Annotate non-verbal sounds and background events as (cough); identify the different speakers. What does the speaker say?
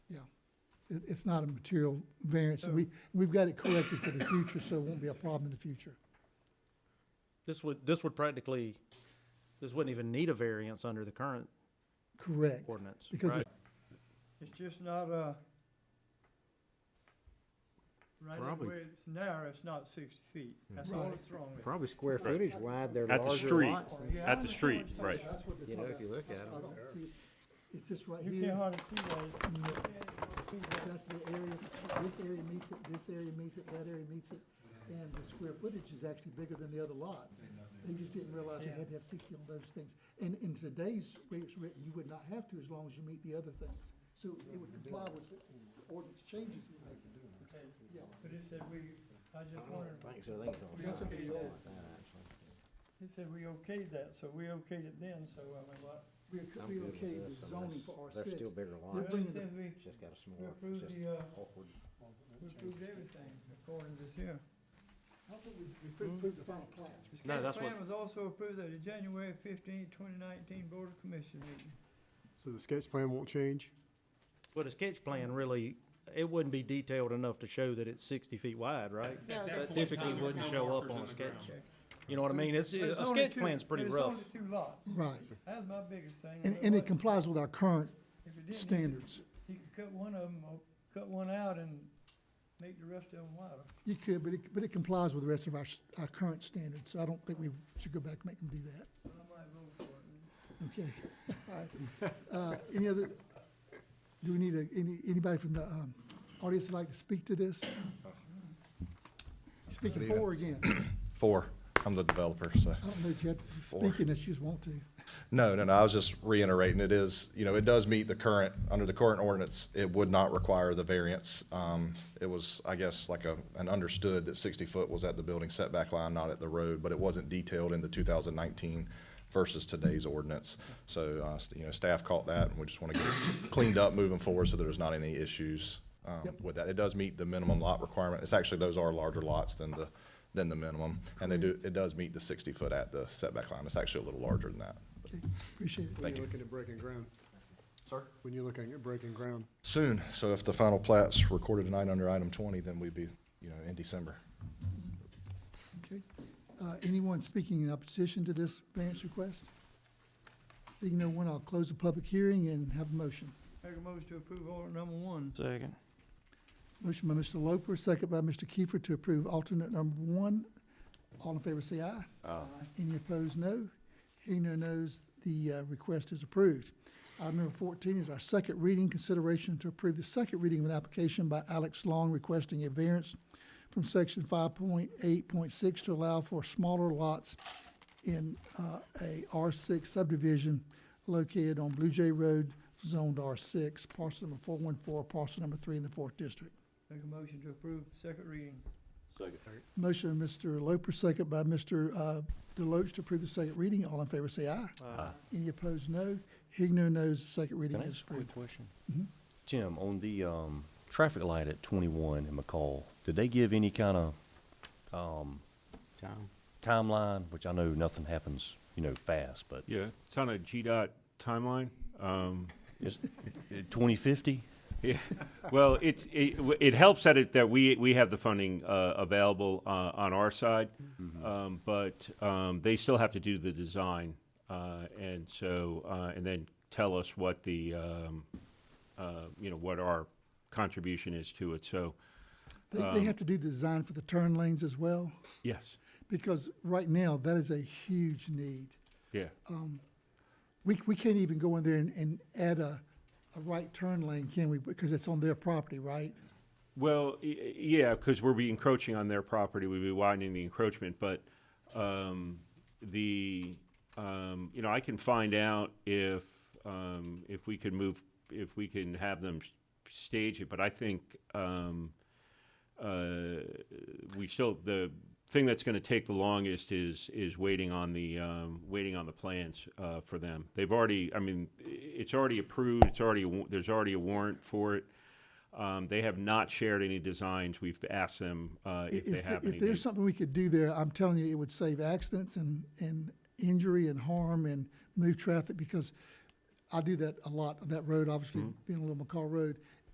Speaker 1: it, it's not a material variance. and We, we've got it corrected for the future, so it won't be a problem in the future.
Speaker 2: This would, this would practically, this wouldn't even need a variance under the current
Speaker 1: Correct.
Speaker 2: ordinance,
Speaker 1: Because
Speaker 2: right?
Speaker 3: It's just not, uh, right of
Speaker 4: Probably-
Speaker 3: way it's narrow, it's not sixty feet. That's all
Speaker 1: Right.
Speaker 3: that's wrong with it.
Speaker 4: Probably square footage wide, they're
Speaker 5: At the
Speaker 4: larger
Speaker 5: street.
Speaker 4: lots. than-
Speaker 3: Yeah, I
Speaker 5: At the
Speaker 3: understand
Speaker 5: street,
Speaker 3: what you're
Speaker 5: right.
Speaker 3: saying.
Speaker 1: That's what
Speaker 4: You
Speaker 1: they're
Speaker 4: know,
Speaker 1: talking
Speaker 4: if you look at
Speaker 1: about. I don't
Speaker 4: it,
Speaker 1: see, it. it's just right
Speaker 3: You can't
Speaker 1: here.
Speaker 3: hardly see that. It's-
Speaker 1: and the- That's the area, this area meets it, this area meets it, that area meets it, and the square footage is actually bigger than the other lots. They just didn't realize they had to have sixty on those things. And in today's way it's written, you would not have to as long as you meet the other things. So it would comply with the ordinance changes we make. Yeah,
Speaker 3: But it said we, I just wondered,
Speaker 4: I think so, I think it's on the
Speaker 1: That's
Speaker 4: side,
Speaker 1: okay,
Speaker 4: something
Speaker 1: yeah.
Speaker 4: like that, actually.
Speaker 3: he said we okayed that, so we okayed it then, so uh, I mean, what?
Speaker 1: we,
Speaker 4: I'm
Speaker 1: we
Speaker 4: good with
Speaker 1: okay
Speaker 4: this,
Speaker 1: with
Speaker 4: unless
Speaker 1: zoning for R
Speaker 4: They're
Speaker 1: six.
Speaker 4: still bigger
Speaker 3: Well,
Speaker 4: lots,
Speaker 1: bringing
Speaker 3: it
Speaker 1: the-
Speaker 3: said we,
Speaker 4: it's just got a
Speaker 3: we
Speaker 4: smaller, it's
Speaker 3: approved
Speaker 4: just
Speaker 3: the, uh,
Speaker 4: awkward.
Speaker 3: we approved everything according to this here.
Speaker 1: I thought we, we approved approved the final plan.
Speaker 3: This
Speaker 2: No,
Speaker 3: game
Speaker 2: that's what-
Speaker 3: plan was also approved at the January fifteenth, twenty nineteen Board of Commission meeting.
Speaker 6: So the sketch plan won't change?
Speaker 2: But a sketch plan really, it wouldn't be detailed enough to show that it's sixty feet wide, right?
Speaker 1: No,
Speaker 7: that's
Speaker 2: That
Speaker 7: the
Speaker 2: typically
Speaker 7: time with
Speaker 2: wouldn't
Speaker 7: no
Speaker 2: show up
Speaker 7: markers
Speaker 2: on a
Speaker 7: in the
Speaker 2: sketch.
Speaker 7: ground.
Speaker 2: You know what I mean? It's,
Speaker 3: But it's
Speaker 2: a
Speaker 3: only
Speaker 2: sketch
Speaker 3: two-
Speaker 2: plan's pretty
Speaker 3: but
Speaker 2: rough.
Speaker 3: It's only two lots.
Speaker 1: Right,
Speaker 3: That's my biggest thing.
Speaker 1: and,
Speaker 3: is
Speaker 1: and it
Speaker 3: what-
Speaker 1: complies with our current
Speaker 3: if it didn't,
Speaker 1: standards.
Speaker 3: You could cut one of them, or cut one out and make the rest of them wider.
Speaker 1: You could, but it, but it complies with the rest of our, s- our current standards, so I don't think we should go back and make them do that.
Speaker 3: I might vote for it.
Speaker 1: Okay, (laughs) all right. Uh, Any other, do we need a, any, anybody from the um, audience would like to speak to this? Speaking for or against? I
Speaker 8: Four. I'm the developer, so.
Speaker 1: don't know if you have to speak unless you just want to.
Speaker 8: No, no, no, I was just reiterating, it is, you know, it does meet the current, under the current ordinance, it would not require the variance. Um, it was, I guess, like a, an understood that sixty foot was at the building setback line, not at the road, but it wasn't detailed in the two thousand nineteen versus today's ordinance. So, uh, you know, staff caught that, and we just wanna get it cleaned up moving forward so there's not any issues, um,
Speaker 1: Yep.
Speaker 8: with that. It does meet the minimum lot requirement, it's actually, those are larger lots than the, than the minimum, and they do, it does meet the sixty foot at the setback line, it's actually a little larger than that.
Speaker 1: Okay, appreciate it.
Speaker 8: Thank
Speaker 6: When
Speaker 8: you.
Speaker 6: you're looking at breaking ground,
Speaker 8: Sir?
Speaker 6: when you're looking at breaking ground.
Speaker 8: Soon, so if the final plat's recorded tonight under item twenty, then we'd be, you know, in December.
Speaker 1: Okay. Uh, Anyone speaking in opposition to this variance request? Seeing no one, I'll close the public hearing and have a motion.
Speaker 3: Make a motion to approve order number one.
Speaker 2: Second.
Speaker 1: Motion by Mr. Loper, second by Mr. Kiefer to approve alternate number one. All in favor say aye. Aye. Any opposed, no. Hearing no nos, the uh, request is approved. Item number fourteen is our second reading, consideration to approve the second reading of an application by Alex Long requesting a variance from section five point eight point six to allow for smaller lots in uh, a R six subdivision located on Blue Jay Road, zoned R six, parcel number four one four, parcel number three in the fourth district.
Speaker 3: Make a motion to approve second reading.
Speaker 1: Motion by Mr. Loper, second by Mr. uh, Deloach to approve the second reading. All in favor say aye. Any opposed, no. Hearing no nos, the second reading
Speaker 9: Can I
Speaker 1: is
Speaker 9: ask a quick
Speaker 1: approved.
Speaker 9: question? Jim, on the, um, traffic light at twenty-one in McCall, did they give any kind of um,
Speaker 4: Tom?
Speaker 9: timeline, which I know nothing happens, you know, fast, but
Speaker 5: Yeah, it's on a GDOT timeline. Um, (laughs)
Speaker 9: is, (laughs) twenty fifty?
Speaker 5: yeah, well, it's, it, w- it helps that it, that we, we have the funding, uh, available, uh, on our side. Um, but, um, they still have to do the design, uh, and so, uh, and then tell us what the, um, uh, you know, what our contribution is to it, so,
Speaker 1: They,
Speaker 9: Um,
Speaker 1: they have to do design for the turn lanes as well,
Speaker 5: yes,
Speaker 1: because right now, that is a huge need.
Speaker 5: yeah.
Speaker 1: We, we can't even go in there and, and add a, a right turn lane, can we? Because it's on their property, right?
Speaker 5: Well, y- y- yeah, because we'll be encroaching on their property, we'll be widening the encroachment, but, um, the, um, you know, I can find out if, um, if we can move, if we can have them s- stage it, but I think, um, uh, we still, the thing that's gonna take the longest is, is waiting on the, um, waiting on the plans, uh, for them. They've already, I mean, i- it's already approved, it's already, a wa- there's already a warrant for it. Um, they have not shared any designs. We've asked them, uh, if they have any.
Speaker 1: If there's
Speaker 5: They-
Speaker 1: something we could do there, I'm telling you, it would save accidents and, and injury and harm
Speaker 5: Mm-hmm.
Speaker 1: and move traffic because I do that a lot, on that road, obviously being a little McCall road.